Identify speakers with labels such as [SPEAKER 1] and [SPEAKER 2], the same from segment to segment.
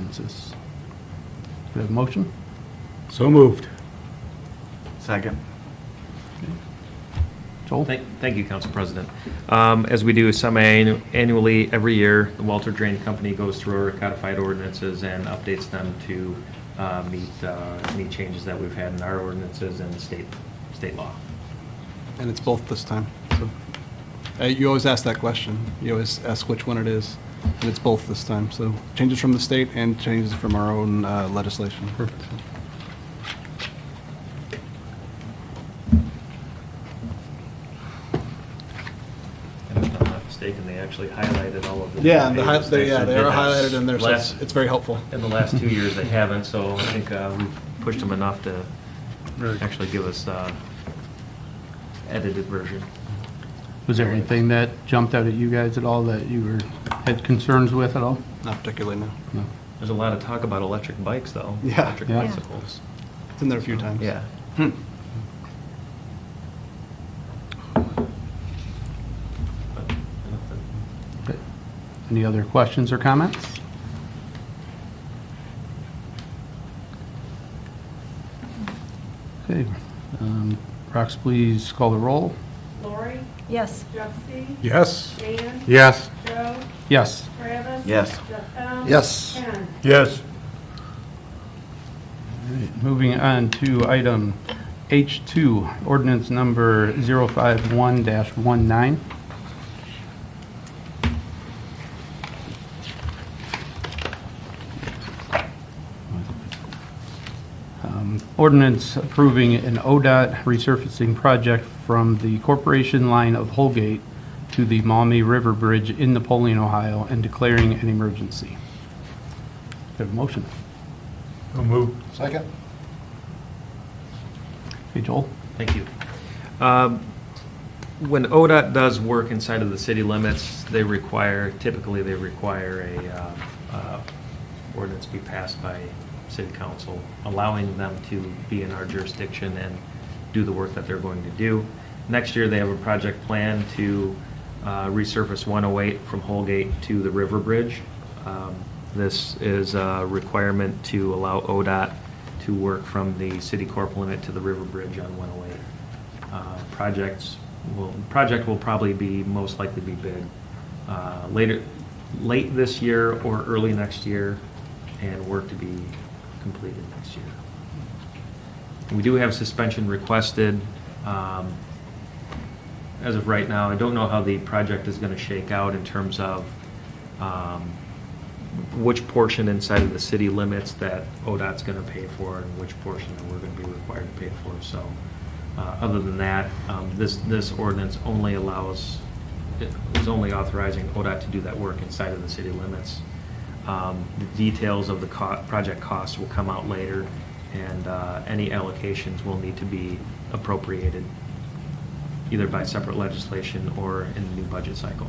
[SPEAKER 1] ordinances. Do we have a motion?
[SPEAKER 2] So moved.
[SPEAKER 3] Second.
[SPEAKER 1] Joel?
[SPEAKER 4] Thank thank you, Council President. Um, As we do semi-annually, every year, the Walter Drain Company goes through our codified ordinances and updates them to uh, meet uh, any changes that we've had in our ordinances and state, state law.
[SPEAKER 5] And it's both this time, so. Uh, You always ask that question. You always ask which one it is, and it's both this time. So changes from the state and changes from our own uh, legislation. Perfect.
[SPEAKER 4] And if I'm not mistaken, they actually highlighted all of the.
[SPEAKER 5] Yeah, and the hi-
[SPEAKER 4] pages.
[SPEAKER 5] they, yeah, they
[SPEAKER 4] actually
[SPEAKER 5] are
[SPEAKER 4] did that
[SPEAKER 5] highlighted in there, so it's,
[SPEAKER 4] last-
[SPEAKER 5] it's very helpful.
[SPEAKER 4] In the last two years, they haven't, so I think uh, we've pushed them enough to actually give us uh, edited version.
[SPEAKER 1] Was there anything that jumped out at you guys at all that you were, had concerns with at all?
[SPEAKER 5] Not particularly, no.
[SPEAKER 1] No.
[SPEAKER 4] There's a lot of talk about electric bikes, though.
[SPEAKER 5] Yeah.
[SPEAKER 4] Electric
[SPEAKER 1] Yeah.
[SPEAKER 4] bicycles.
[SPEAKER 5] It's in there a few times.
[SPEAKER 4] Yeah.
[SPEAKER 5] Hmm.
[SPEAKER 4] But nothing.
[SPEAKER 1] Okay. Any other questions or comments? Okay, um, Rox, please call the roll.
[SPEAKER 6] Lori,
[SPEAKER 7] Yes.
[SPEAKER 6] Jeffy,
[SPEAKER 2] Yes.
[SPEAKER 6] Dan,
[SPEAKER 2] Yes.
[SPEAKER 6] Joe,
[SPEAKER 1] Yes.
[SPEAKER 6] Travis.
[SPEAKER 3] Yes.
[SPEAKER 6] Jeff Bell.
[SPEAKER 1] Yes.
[SPEAKER 6] Ken.
[SPEAKER 2] Yes.
[SPEAKER 1] All right, Moving on to item H2, ordinance number 051-19. Um, Ordinance approving an ODOT resurfacing project from the Corporation Line of Holgate to the Maumee River Bridge in Napoleon, Ohio, and declaring an emergency. Do I have a motion?
[SPEAKER 2] So moved.
[SPEAKER 5] Second.
[SPEAKER 1] Hey, Joel?
[SPEAKER 4] Thank you. Um, When ODOT does work inside of the city limits, they require, typically, they require a um, uh, ordinance be passed by city council, allowing them to be in our jurisdiction and do the work that they're going to do. Next year, they have a project plan to uh, resurface 108 from Holgate to the River Bridge. Um, This is a requirement to allow ODOT to work from the city corp limit to the river bridge on 108. Uh, Projects will, project will probably be, most likely be bid uh, later, late this year or early next year, and work to be completed next year. We do have suspension requested. um, As of right now, I don't know how the project is going to shake out in terms of um, which portion inside of the city limits that ODOT's going to pay for and which portion that we're going to be required to pay for. So, uh, other than that, um, this, this ordinance only allows, is only authorizing ODOT to do that work inside of the city limits. Um, The details of the co- project costs will come out later, and uh, any allocations will need to be appropriated either by separate legislation or in the new budget cycle.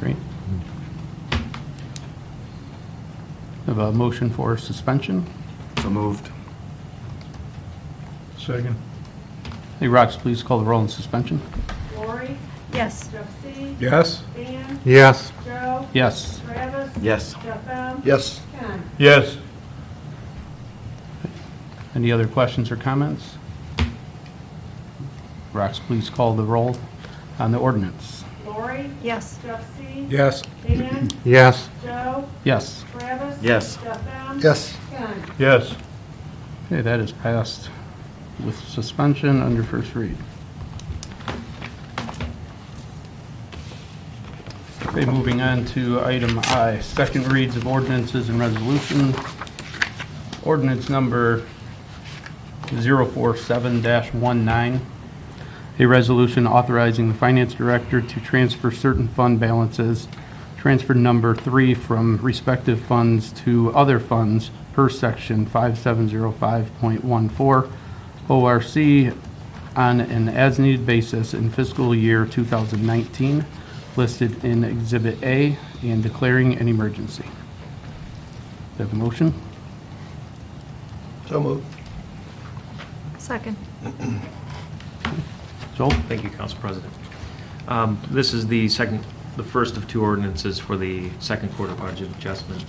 [SPEAKER 1] Great. Have a motion for suspension.
[SPEAKER 3] So moved.
[SPEAKER 2] Second.
[SPEAKER 1] Hey, Rox, please call the roll on suspension.
[SPEAKER 6] Lori,
[SPEAKER 7] Yes.
[SPEAKER 6] Jeffy,
[SPEAKER 2] Yes.
[SPEAKER 6] Dan,
[SPEAKER 2] Yes.
[SPEAKER 6] Joe,
[SPEAKER 1] Yes.
[SPEAKER 6] Travis.
[SPEAKER 3] Yes.
[SPEAKER 6] Jeff Bell.
[SPEAKER 2] Yes.
[SPEAKER 6] Ken.
[SPEAKER 2] Yes.
[SPEAKER 1] Any other questions or comments? Rox, please call the roll on the ordinance.
[SPEAKER 6] Lori,
[SPEAKER 7] Yes.
[SPEAKER 6] Jeffy.
[SPEAKER 2] Yes.
[SPEAKER 6] Dan,
[SPEAKER 2] Yes.
[SPEAKER 6] Joe,
[SPEAKER 1] Yes.
[SPEAKER 6] Travis.
[SPEAKER 3] Yes.
[SPEAKER 6] Jeff Bell.
[SPEAKER 2] Yes.
[SPEAKER 6] Ken.
[SPEAKER 2] Yes.
[SPEAKER 1] Okay, that is passed with suspension under first read. Okay, moving on to item I, second reads of ordinances and resolution. Ordinance number 047-19, a resolution authorizing the finance director to transfer certain fund balances, transfer number three from respective funds to other funds per section 5705.14 ORC on an as-needed basis in fiscal year 2019, listed in Exhibit A, and declaring an emergency. Do I have a motion?
[SPEAKER 2] So moved.
[SPEAKER 7] Second.
[SPEAKER 1] Joel?
[SPEAKER 4] Thank you, Council President. Um, This is the second, the first of two ordinances for the second quarter budget adjustment.